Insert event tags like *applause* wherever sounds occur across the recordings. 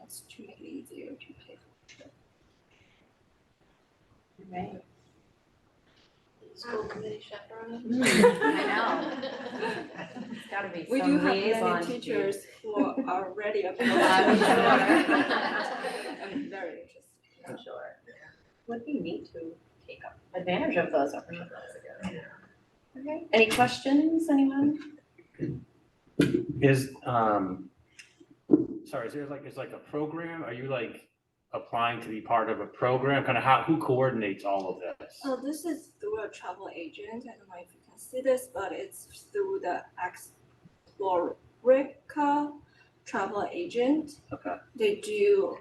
else to make it easier to pay for the trip. Right. School committee chaperone. *laughs* It's gotta be *laughs* We do some have liaison. many to- teachers who *laughs* are already a I'm sure. *laughs* sure. I'm very interested. I'm sure. Would be neat to take up advantage of those opportunities. Okay, any questions, anyone? Is, um, sorry, is there like, is like a program? Are you like applying to be part of a program? Kind of how, who coordinates all of this? So this is through a travel agent. I don't know if you can see this, but it's through the Explorica travel agent. Okay. They do,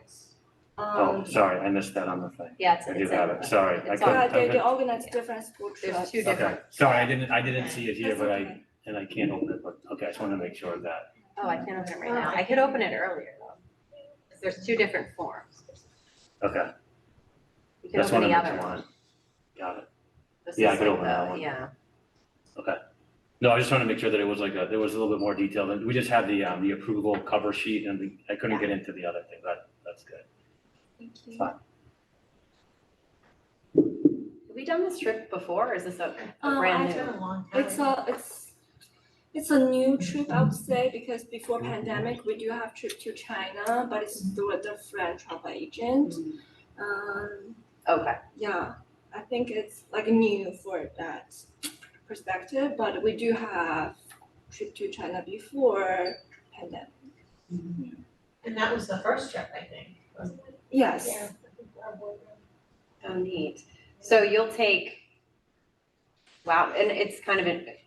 Oh, um, sorry, I missed that on the thing. Yeah, it's, I it's. do have a- it, sorry. I it's couldn't- yeah, they, okay. they organize different school trips. There's two Okay, different. sorry, I didn't, I didn't see it here, That's but I, okay. and I can't open it, but, okay, I just wanted to make sure of that. Oh, I can't open it right now. I could open it earlier though. 'Cause There's two different forms. Okay, You can that's open one of the the other two one. on. Got it. This Yeah, I is could like open that the- one. Yeah. No, I just wanted to make sure that it was like a, there was a little bit more detail. than- We just had the, um, the approval cover sheet and the- I couldn't get into the other thing, but that's good. Thank you. Fine. Have we done this trip before or is this a a Um, brand I new? a long It's a, it's, it's a new trip, I would say, because before pandemic, we do have trip to China, but it's through a different travel agent. Um, Okay, yeah, I think it's like new for that perspective, but we do have trip to China before pandemic. And that was the first trip, I think, wasn't it? Yes. oh neat. So you'll take, wow, and it's kind of,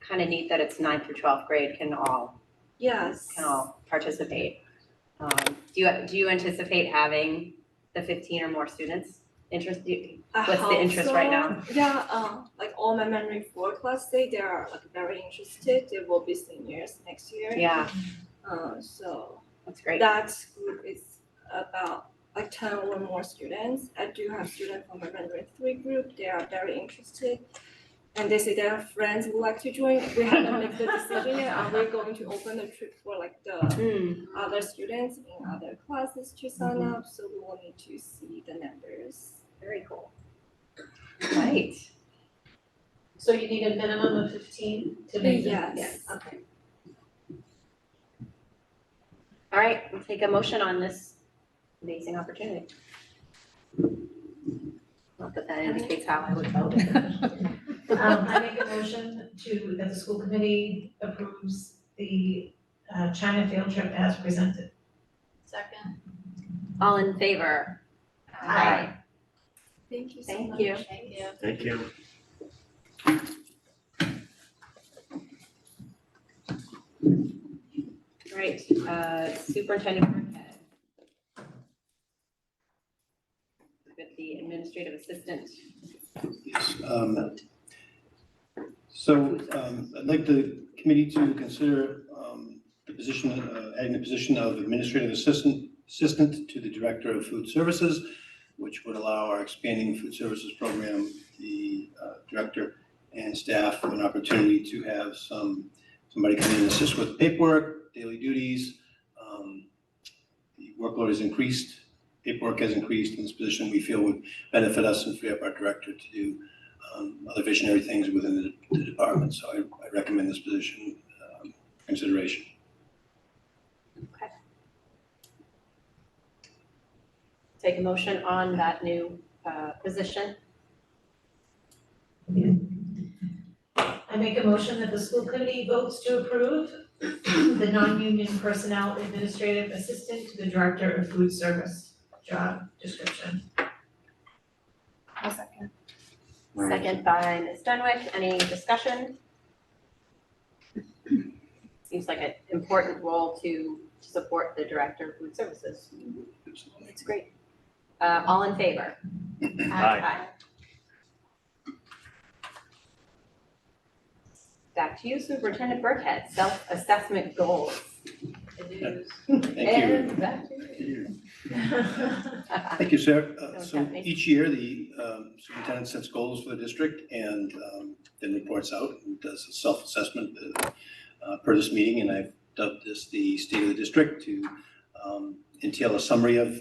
kind of neat that it's ninth through twelfth grade can all, Yes. can all participate. Um, Do you, do you anticipate having the fifteen or more students interested? I What's the hope interest right so. now? Yeah, um, like all my memory four class, they they are like very interested. They will be seniors next year. Yeah, Uh, so that's great. that group is about like ten or more students. I do have students from the Mandarin three group. They are very interested. And they say their friends would like to join. We haven't made the decision yet. Are we going to open the trip for like the Hmm, other students in other classes to sign Mm-hmm. up? So we will need to see the numbers. very cool. Right. So you need a minimum of fifteen to make it? Yes. Okay. All right, we'll take a motion on this amazing opportunity. Not that that indicates how I would vote. *laughs* Um, I make a motion to, that the school committee approves the uh, China field trip as presented. Second. All in favor? Aye. Thank you so much. Thank you. Thank you. Thank you. All right, uh, Superintendent Burkhead. With the administrative assistant. Um, vote. So um, I'd like the committee to consider um, the position, uh, adding the position of administrative assistant, assistant to the director of food services, which would allow our expanding food services program, the uh, director and staff an opportunity to have some, somebody come in and assist with paperwork, daily duties. Um, The workload has increased, paperwork has increased, and this position we feel would benefit us and free up our director to do um, other visionary things within the- the department, so I I recommend this position um, consideration. Take a motion on that new uh, position. I make a motion that the school committee votes to approve the non-union personnel administrative assistant to the director of food service job description. Second by Ms. Dunwick. Any discussion? Seems like an important role to to support the Director of Food Services. That's great. Uh, all in favor? Aye. Back to you, Superintendent Burkhead, self-assessment goals. Thank you. And back to you. *laughs* Thank you, Sarah. Uh, That was So definitely- each year, the um, superintendent sets goals for the district and um, then reports out and does a self-assessment uh, uh, per this meeting. And I've dubbed this the state of the district to um, entail a summary of